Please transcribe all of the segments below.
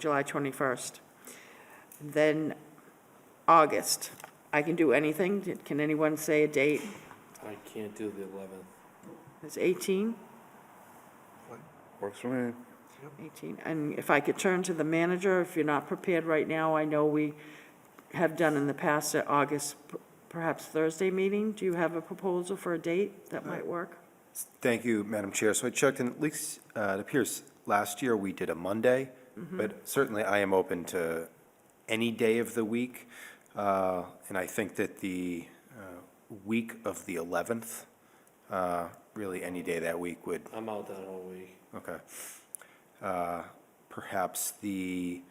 July 21st. Then August, I can do anything. Can anyone say a date? I can't do the eleventh. It's 18, Works for me. 18. And if I could turn to the manager, if you're not prepared right now, I know we have done in the past at August, perhaps Thursday meeting. Do you have a proposal for a date that might work? Thank you, Madam Chair. So I checked, and at least, uh, it appears last year we did a Monday, but certainly I am open to any day of the week. Uh, And I think that the uh, week of the 11th, uh, really any day that week would, I'm out that whole week. okay. Uh, Perhaps the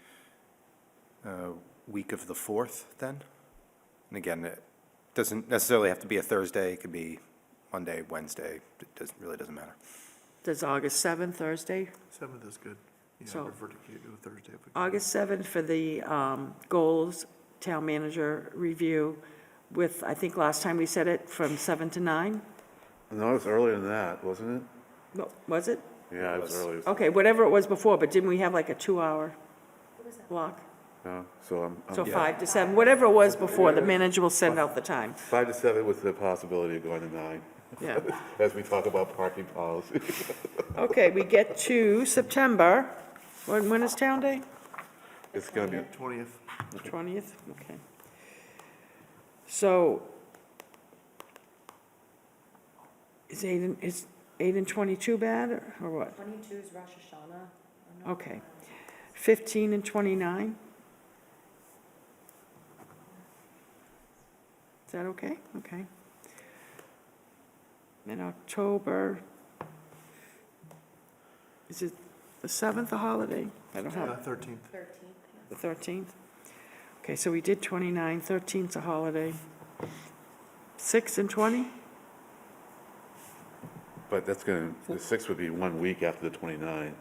uh, week of the 4th, then? And again, it doesn't necessarily have to be a Thursday, it could be Monday, Wednesday, it doesn't, really doesn't matter. Does August 7th, Thursday? Seventh is good. So- Yeah, I prefer to keep it to Thursday. if we can. August 7th for the um, goals, town manager review with, I think last time we said it, from 7 to 9? No, it was earlier than that, wasn't No, Was Oh. it? it? Yeah, it was earlier. Okay, whatever it was before, but didn't we have like a two-hour block? No, So I'm, I'm- So five to seven, whatever it was before, the manager will send out the time, five to seven with the possibility of going to nine, yeah. as we talk about parking policy. Okay, we get to September, when, when is town day? It's gonna be, Twentieth, Twentieth, okay. So is eight and, is eight and twenty-two bad, or- or what? 22 is Rosh Hashanah. Okay. Fifteen and twenty-nine? Is that okay? Okay. In October, is it the seventh, a holiday? I don't have, thirteenth. 13th. the thirteenth? Okay, so we did twenty-nine, thirteenth's a holiday. Six and twenty? but that's gonna, the six would be one week after the 29.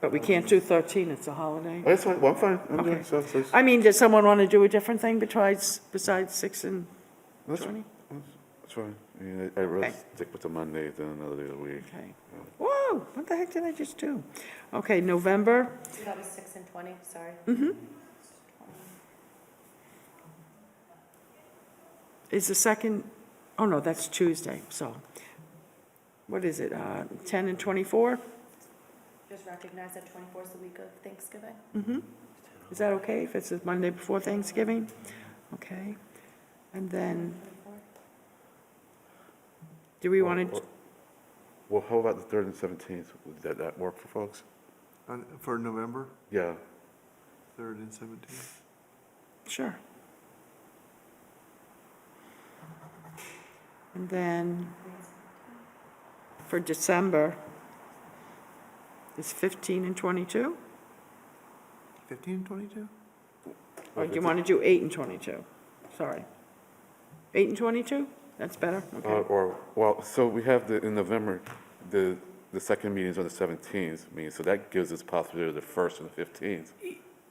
But we can't do thirteen, it's a holiday. Oh, That's fine, well, I'm fine, I'm Okay. doing so, so. I mean, does someone want to do a different thing besides, besides six and That's twenty? that's fine. I mean, I- I'd rather Okay. stick with the Monday than another day of the week. Okay. Whoa, what the heck did I just do? Okay, November, That was 6 and 20, sorry. is the second, oh no, that's Tuesday, so, what is it, uh, 10 and 24? Just recognize that 24 is the week of Thanksgiving. Mm-hmm. Is that okay, if it's the Monday before Thanksgiving? Okay, and then, 24. do we want to, Or- Well, how about the third and seventeenth? Would that, that work for folks? For November, Yeah, third and seventeenth. sure. And then, for December, is 15 and 22? Fifteen and twenty-two? Or do you want to do eight and 22? Sorry. Eight and 22? That's better, Uh, okay. Or, well, so we have the, in November, the, the second meeting is on the 17th, meeting, so that gives us possibility of the first and the 15th.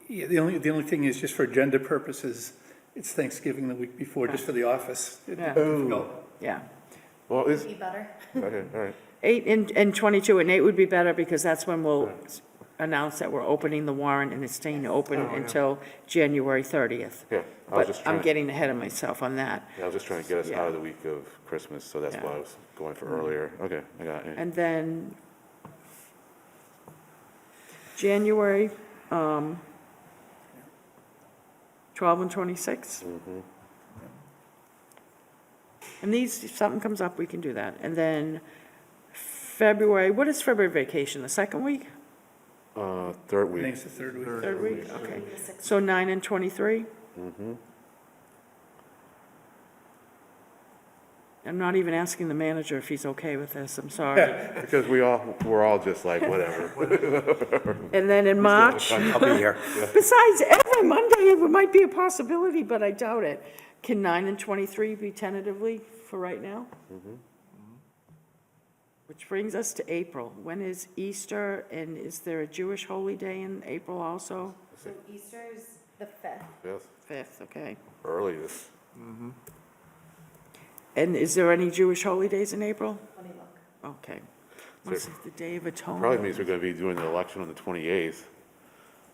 Yeah, the only, the only thing is, just for agenda purposes, it's Thanksgiving the week before, just for the office. It'd be Yeah. difficult. Yeah. Well, is, Be better. okay, all right. Eight and, and 22, and eight would be better because that's when we'll s- announce that we're opening the warrant and it's staying open until January 30th. Yeah, I was But Oh, just I'm trying, getting ahead of myself on that. I was just trying to get us out Yeah. of the week of Christmas, so that's Yeah. why I was going for earlier. Okay, I got it. And then January, um, 12 and 26? And these, if something comes up, we can do that. And then February, what is February vacation, the second week? Uh, third I think week, it's the third week. Third week, okay. The 6th. So 9 and 23? I'm not even asking the manager if he's okay with this, I'm sorry. because we all, we're all just like, whatever. And then in March? I'll be here. Besides, every Monday, it might be a possibility, but I doubt it. Can 9 and 23 be tentatively for right now? Which brings us to April. When is Easter, and is there a Jewish holy day in April also? So Easter is the 5th. Yes, 5th, okay. Early this, And is there any Jewish holy days in April? Let me look. Okay. What's the Day of probably Atonement? means we're gonna be doing the election on the 28th.